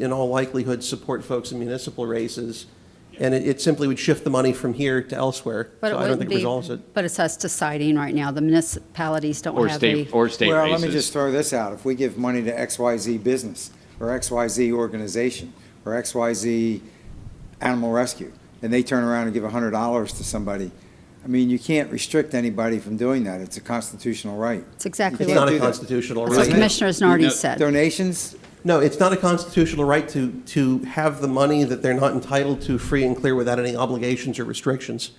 in all likelihood, support folks in municipal races, and it, it simply would shift the money from here to elsewhere. But it So I don't wouldn't think it be- resolves it. But it's us deciding right now. The municipalities don't Or have state, the, or state Well, let me just races. throw this out. If we give money to XYZ business, or XYZ organization, or XYZ animal rescue, and they turn around and give hundred dollars to somebody, I mean, you can't restrict anybody from doing that. It's a constitutional right. it's exactly It's can't not what, a do that. constitutional that's what Right. right. Commissioner You Nardi know, said. Donations, No, it's not a constitutional right to, to have the money that they're not entitled to free and clear without any obligations or restrictions.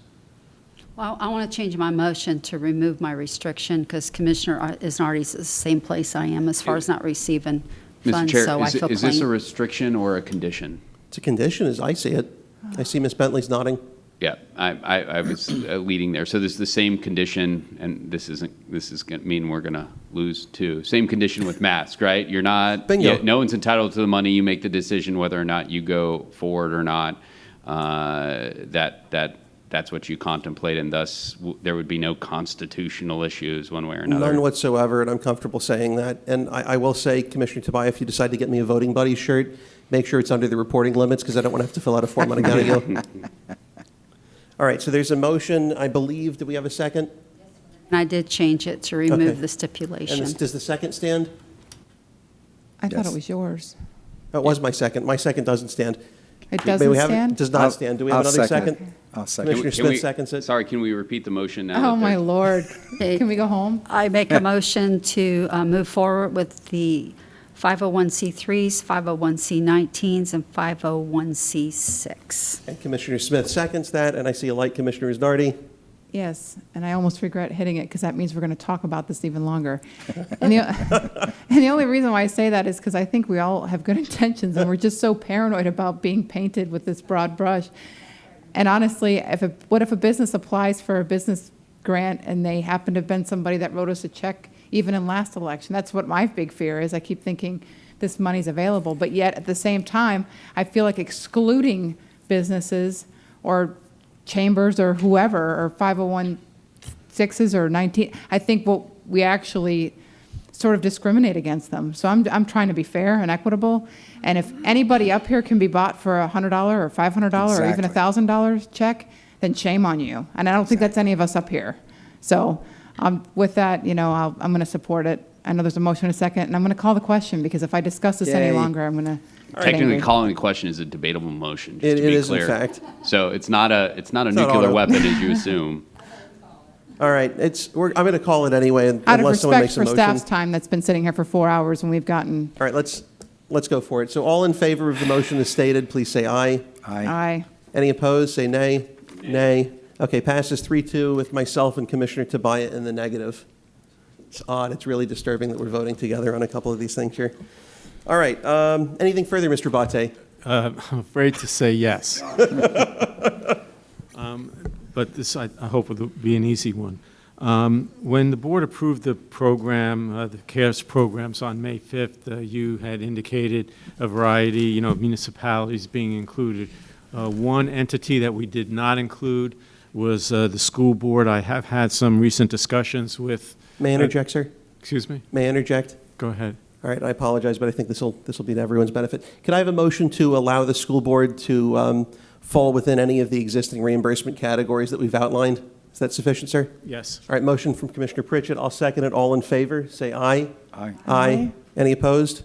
Well, I want to change my motion to remove my restriction because Commissioner uh, Nardi's the same place I am as far as not receiving Mr. funds, so Chair, I is, feel is this a clean. restriction or a condition? It's a condition, as I see it. I see Ms. Bentley's nodding. Yeah, I, I, I was uh, leading there. So this is the same condition, and this isn't, this is gonna mean we're gonna lose too. Same condition with mask, right? You're not. Bingo. yeah, No one's entitled to the money. You make the decision whether or not you go forward or not. Uh, That, that, that's what you contemplate, and thus w- there would be no constitutional issues one way or another. None whatsoever, and I'm comfortable saying that. And I, I will say, Commissioner Tobias, if you decide to get me a voting buddy shirt, make sure it's under the reporting limits, because I don't want to have to fill out a form on a county deal. All right, so there's a motion, I believe, do we have a second? And I did change it to Okay. remove the And this- stipulation. does the second stand? I thought Yes. it was yours. That was my second, my second doesn't stand. It May doesn't we have it? stand? Does I'll- not stand, do we have I'll another second it. second? I'll second it. Commissioner Can we- Smith seconds it. Sorry, can we repeat the motion now? Oh, that my there's- lord. Hey. Can we go home? I make a motion to uh, move forward with the 501c3s, 501c19s, and 501c6. And Commissioner Smith seconds that, and I see a light, Commissioner Isnardi. Yes, and I almost regret hitting it because that means we're going to talk about this even longer. And the, and the only reason why I say that is because I think we all have good intentions and we're just so paranoid about being painted with this broad brush. And honestly, if a, what if a business applies for a business grant and they happen to have been somebody that wrote us a check even in last election? That's what my big fear is. I keep thinking this money's available, but yet at the same time, I feel like excluding businesses or chambers or whoever, or 501s or 19, I think what we actually sort of discriminate against them. So I'm, I'm trying to be fair and equitable, and if anybody up here can be bought for a $100 or $500 or even a Exactly. $1,000 check, then shame on you. And I don't think that's any of us up here. So um, with that, you know, I'll- I'm going to support it. I know there's a motion and a second, and I'm going to call the question, because if I discuss this any Yay. longer, I'm going to get Technically, angry. calling the question is a debatable motion, It- just to it be is, in clear. fact. So it's not a, it's not a not nuclear auto. weapon, as you assume. All right, it's, we're, I'm going to call it anyway, un- Out of unless someone respect makes a for motion. staff's time that's been sitting here for four hours, and we've gotten All right, let's, let's go for it. So all in favor of the motion as stated, please say aye. Aye. Aye. Any opposed, say nay. Nay. Okay, passes 3-2 with myself and Commissioner Tobias in the negative. It's odd, it's really disturbing that we're voting together on a couple of these things here. All right, um, anything further, Mr. Bate? Uh, I'm afraid to say yes. Um, But this, I I hope will be an easy one. Um, When the board approved the program, uh, the CARES programs on May 5th, uh, you had indicated a variety, you know, of municipalities being included. Uh, One entity that we did not include was uh, the school board. I have had some recent discussions with. uh, May I interject, sir? Excuse me? May I interject? Go ahead. All right, I apologize, but I think this will, this will be to everyone's benefit. Could I have a motion to allow the school board to um, fall within any of the existing reimbursement categories that we've outlined? Is that sufficient, sir? Yes. All right, motion from Commissioner Pritchett. I'll second it. All in favor, say aye. Aye. Aye. Aye. Any opposed?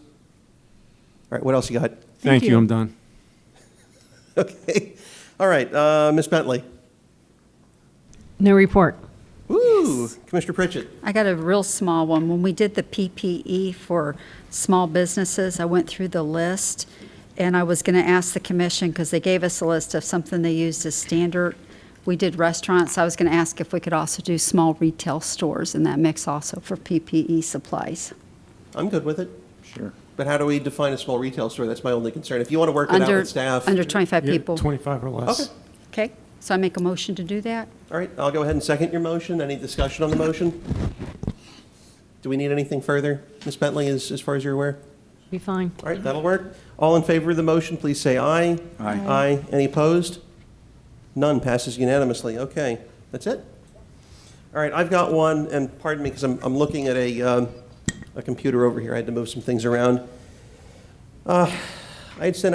All right, what else you got? Thank you, you. I'm done. Okay. All right, uh, Ms. Bentley. No report. Woo! Commissioner Pritchett. I got a real small one. When we did the PPE for small businesses, I went through the list, and I was going to ask the commission, because they gave us a list of something they used as standard. We did restaurants, I was going to ask if we could also do small retail stores in that mix also for PPE supplies. I'm good with it. Sure. But how do we define a small retail store? That's my only concern. If you want to work it out Under with staff. Under 25 Yeah, people. 25 or less. Okay. Okay, so I make a motion to do that? All right, I'll go ahead and second your motion. Any discussion on the motion? Do we need anything further, Ms. Bentley, as, as far as you're aware? Be fine. All right, that'll work. All in favor of the motion, please say aye. Aye. Aye. Any opposed? None. Passes unanimously. Okay, that's it. All right, I've got one, and pardon me, because I'm, I'm looking at a, um, a computer over here. I had to move some things around. Uh, I had sent